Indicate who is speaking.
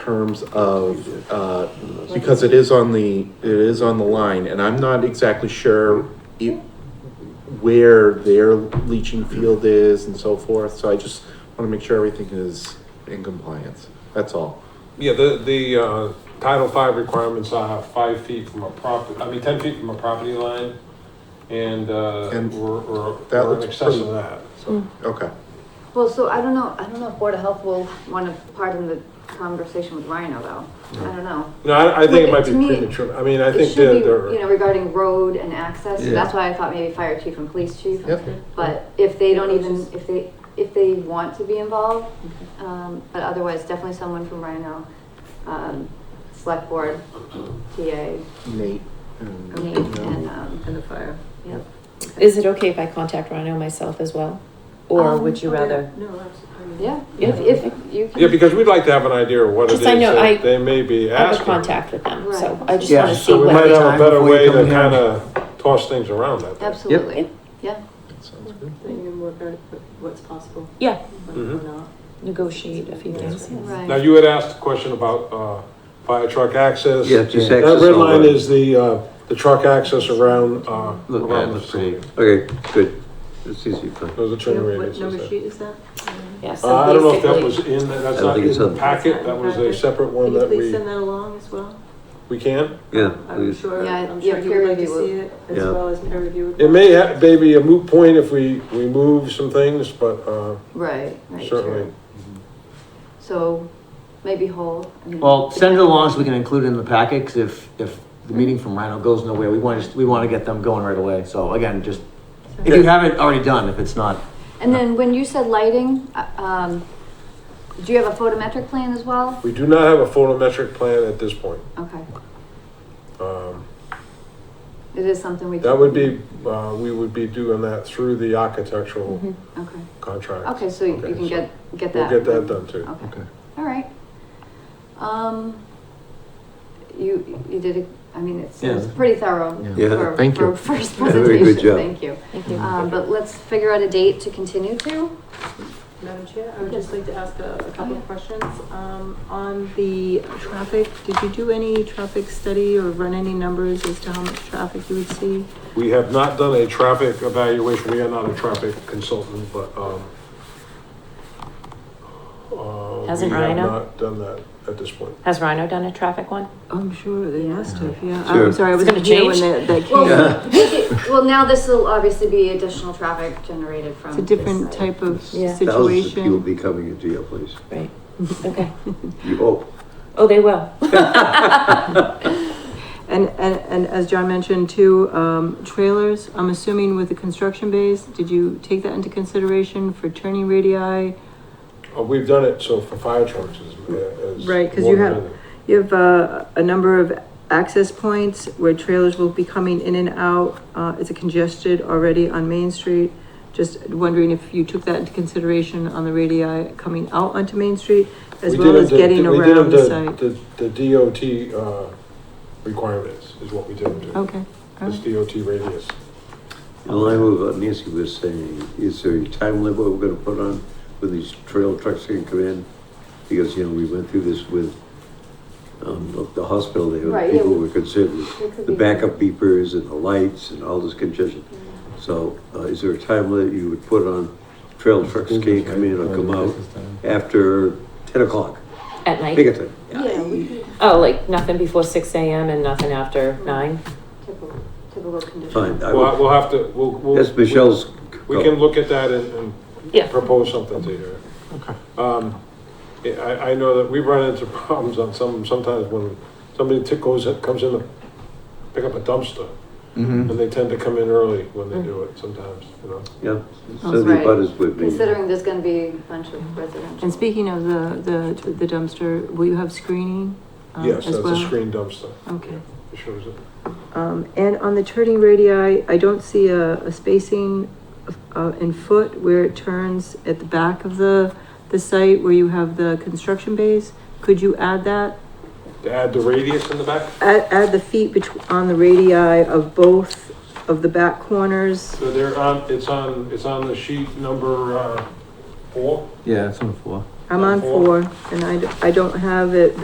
Speaker 1: terms of, uh, because it is on the, it is on the line, and I'm not exactly sure i- where their leaching field is and so forth, so I just wanna make sure everything is in compliance, that's all.
Speaker 2: Yeah, the, the uh, Title V requirements are five feet from a property, I mean, ten feet from a property line, and, uh,
Speaker 1: And
Speaker 2: we're, we're,
Speaker 1: that
Speaker 2: we're in
Speaker 1: looks
Speaker 2: excess of
Speaker 1: pretty-
Speaker 2: that.
Speaker 1: Okay,
Speaker 3: Well, so I don't know, I don't know if Board of Health will want to pardon the conversation with Rhino though. I don't know.
Speaker 2: No, I, I think it might be
Speaker 3: To me,
Speaker 2: premature, I mean, I
Speaker 3: It
Speaker 2: think
Speaker 3: should
Speaker 2: that
Speaker 3: be, you know,
Speaker 2: they're,
Speaker 3: regarding road and access,
Speaker 1: Yeah.
Speaker 3: that's why I thought maybe fire chief and police chief.
Speaker 1: Yep.
Speaker 3: But if they don't even, if they, if they want to be involved, um, but otherwise definitely someone from Rhino, um, select board, TA,
Speaker 1: Nate. and-
Speaker 3: Nate, and, um,
Speaker 4: And the fire.
Speaker 3: yeah.
Speaker 5: Is it okay if I contact Rhino myself as well? Or
Speaker 3: Um,
Speaker 5: would you rather?
Speaker 4: Oh, No, absolutely. I mean-
Speaker 3: Yeah,
Speaker 5: Yeah.
Speaker 3: if, if you can.
Speaker 2: yeah, because we'd like to have an idea of what it is
Speaker 5: Just I know I
Speaker 2: that they may be
Speaker 5: I have
Speaker 2: asking.
Speaker 5: a contact with them, so
Speaker 3: Right.
Speaker 5: I just
Speaker 6: Yeah,
Speaker 5: wanna see
Speaker 2: So we
Speaker 5: what
Speaker 2: might
Speaker 5: they
Speaker 2: have a
Speaker 6: Time
Speaker 2: better
Speaker 6: before you
Speaker 2: way to
Speaker 6: come here.
Speaker 2: kind of toss things around that day.
Speaker 3: Absolutely, yeah.
Speaker 1: That sounds good.
Speaker 4: Then you can work out what- what's possible,
Speaker 5: Yeah,
Speaker 4: what-
Speaker 2: Mhm.
Speaker 4: what not.
Speaker 5: negotiate a few things. yes.
Speaker 3: Right.
Speaker 2: Now, you had asked a question about uh, fire truck access.
Speaker 6: Yeah, just
Speaker 2: That
Speaker 6: access
Speaker 2: red line
Speaker 6: only.
Speaker 2: is the, uh, the truck access around, uh,
Speaker 6: Look, that
Speaker 2: around the
Speaker 6: looks pretty.
Speaker 2: facility.
Speaker 6: Okay, good. It's easy for.
Speaker 2: Those are turn
Speaker 4: Yeah, What
Speaker 2: radiuses
Speaker 4: number
Speaker 2: there.
Speaker 4: sheet is that?
Speaker 5: Yeah, so
Speaker 2: Uh, I don't know if that was
Speaker 5: basically-
Speaker 2: in, that's
Speaker 6: I don't
Speaker 2: not
Speaker 6: think
Speaker 2: in
Speaker 6: it's
Speaker 2: the
Speaker 6: up.
Speaker 2: packet, that was a separate one
Speaker 4: Can you
Speaker 2: that
Speaker 4: please
Speaker 2: we,
Speaker 4: send that along as well?
Speaker 2: we can.
Speaker 6: Yeah,
Speaker 4: I'm
Speaker 6: please.
Speaker 4: sure,
Speaker 3: Yeah,
Speaker 4: I'm
Speaker 3: yeah,
Speaker 4: sure he
Speaker 3: peer
Speaker 4: would like to
Speaker 3: review will-
Speaker 4: see it, as
Speaker 6: Yeah.
Speaker 4: well as peer review.
Speaker 2: It may ha- maybe a moot point if we, we move some things, but, uh,
Speaker 3: Right, right,
Speaker 2: certainly.
Speaker 3: true. So maybe whole. I mean-
Speaker 6: Well, send it along so we can include it in the packet, because if, if the meeting from Rhino goes nowhere, we want to, we want to get them going right away. So again, just, if you have it already done, if it's not,
Speaker 3: And then when you said lighting, uh, um, do you have a photometric plan as well?
Speaker 2: We do not have a photometric plan at this point.
Speaker 3: Okay,
Speaker 2: Um,
Speaker 3: it is something we.
Speaker 2: That
Speaker 3: can-
Speaker 2: would be, uh, we would be doing that through the architectural
Speaker 5: Mhm.
Speaker 3: Okay,
Speaker 2: contract.
Speaker 3: okay, so you
Speaker 2: Okay,
Speaker 3: you can
Speaker 2: so
Speaker 3: get, get
Speaker 2: We'll get
Speaker 3: that.
Speaker 2: that done too.
Speaker 3: Okay, all right. Um, you, you did, a- I mean, it's, it's
Speaker 6: Yeah.
Speaker 3: pretty thorough.
Speaker 6: Yeah,
Speaker 3: for-
Speaker 1: thank you.
Speaker 3: For first
Speaker 6: Yeah, very
Speaker 3: presentation,
Speaker 6: good job.
Speaker 3: thank you.
Speaker 5: Thank you.
Speaker 3: Um, but let's figure out a date to continue to.
Speaker 4: Madam Chair, I would
Speaker 3: Yes.
Speaker 4: just like to ask a a couple
Speaker 3: Yeah.
Speaker 4: of questions. Um, On the traffic, did you do any traffic study or run any numbers as to how much traffic you would see?
Speaker 2: We have not done a traffic evaluation, we are not a traffic consultant, but, um, uh,
Speaker 5: Hasn't
Speaker 2: we have
Speaker 5: Rhino?
Speaker 2: Not done that at this point.
Speaker 5: Has Rhino done a traffic one?
Speaker 4: I'm sure they must have, yeah.
Speaker 6: Sure.
Speaker 4: I'm sorry, I
Speaker 5: It's
Speaker 4: wasn't
Speaker 5: gonna
Speaker 4: here when
Speaker 5: change.
Speaker 4: that that came.
Speaker 3: Well, well, now this will obviously be additional traffic generated from.
Speaker 4: It's a
Speaker 3: this
Speaker 4: different
Speaker 3: site.
Speaker 4: type of
Speaker 5: Yeah.
Speaker 4: situation.
Speaker 6: thousands of people will be coming into your place.
Speaker 5: Right, okay.
Speaker 6: You hope.
Speaker 5: Oh, they will.
Speaker 4: And, and, and as John mentioned too, um, trailers, I'm assuming with the construction base, did you take that into consideration for turning radii?
Speaker 2: Uh, We've done it, so for fire trucks is, is.
Speaker 4: Right, 'cause
Speaker 2: more
Speaker 4: you have-
Speaker 2: than-
Speaker 4: You have, uh, a number of access points where trailers will be coming in and out. Uh, it's congested already on Main Street. Just wondering if you took that into consideration on the radii coming out onto Main Street as
Speaker 2: We
Speaker 4: well
Speaker 2: did
Speaker 4: as
Speaker 2: them to-
Speaker 4: getting
Speaker 2: we did them
Speaker 4: around the
Speaker 2: to-
Speaker 4: site?
Speaker 2: The, the DOT, uh, requirements is what we did them to,
Speaker 4: Okay, all
Speaker 2: this
Speaker 4: right.
Speaker 2: DOT radius.
Speaker 6: In line with what Nancy was saying, is there a time limit we're gonna put on when these trail trucks can come in? Because, you know, we went through this with, um, the- the hospital there,
Speaker 3: Right,
Speaker 6: and people
Speaker 3: yeah.
Speaker 6: were concerned with
Speaker 3: There could
Speaker 6: the
Speaker 3: be-
Speaker 6: backup beepers and the lights and all this congestion. So, uh, is there a time limit you would put on trail trucks can't come in or come out after ten o'clock?
Speaker 5: At
Speaker 6: Pick a
Speaker 5: night?
Speaker 6: time.
Speaker 3: Yeah, we could
Speaker 5: Oh, like nothing before six AM and nothing after nine?
Speaker 3: typical, typical condition.
Speaker 6: Fine. I
Speaker 2: We'll,
Speaker 6: would-
Speaker 2: we'll have to, we'll, we'll.
Speaker 6: That's Michelle's.
Speaker 2: We can look at that and,
Speaker 5: Yeah.
Speaker 2: and propose something to you. Um, I, I- I know that we run into problems on some, sometimes when somebody t- goes, in- comes in to pick up a dumpster, and they tend to come in early when they do it sometimes, you know?
Speaker 6: Yeah,
Speaker 4: Oh,
Speaker 6: so the
Speaker 3: right.
Speaker 6: butters would be.
Speaker 3: Considering there's gonna be a bunch of residential.
Speaker 4: And speaking of the, the, the dumpster, will you have screening? um,
Speaker 2: Yes,
Speaker 4: as
Speaker 2: that's a
Speaker 4: well?
Speaker 2: screen dumpster.
Speaker 4: Okay.
Speaker 2: It shows it.
Speaker 4: Um, and on the turning radii, I don't see a, a spacing uh, in foot where it turns at the back of the, the site where you have the construction base. Could you add that?
Speaker 2: To add the radius in the back,
Speaker 4: Add, add the feet betw- on the radii of both of the back corners.
Speaker 2: so they're on, it's on, it's on the sheet number, uh, four.
Speaker 6: Yeah, it's on the floor.
Speaker 4: I'm on
Speaker 2: Four.
Speaker 4: four and I, d- I don't have it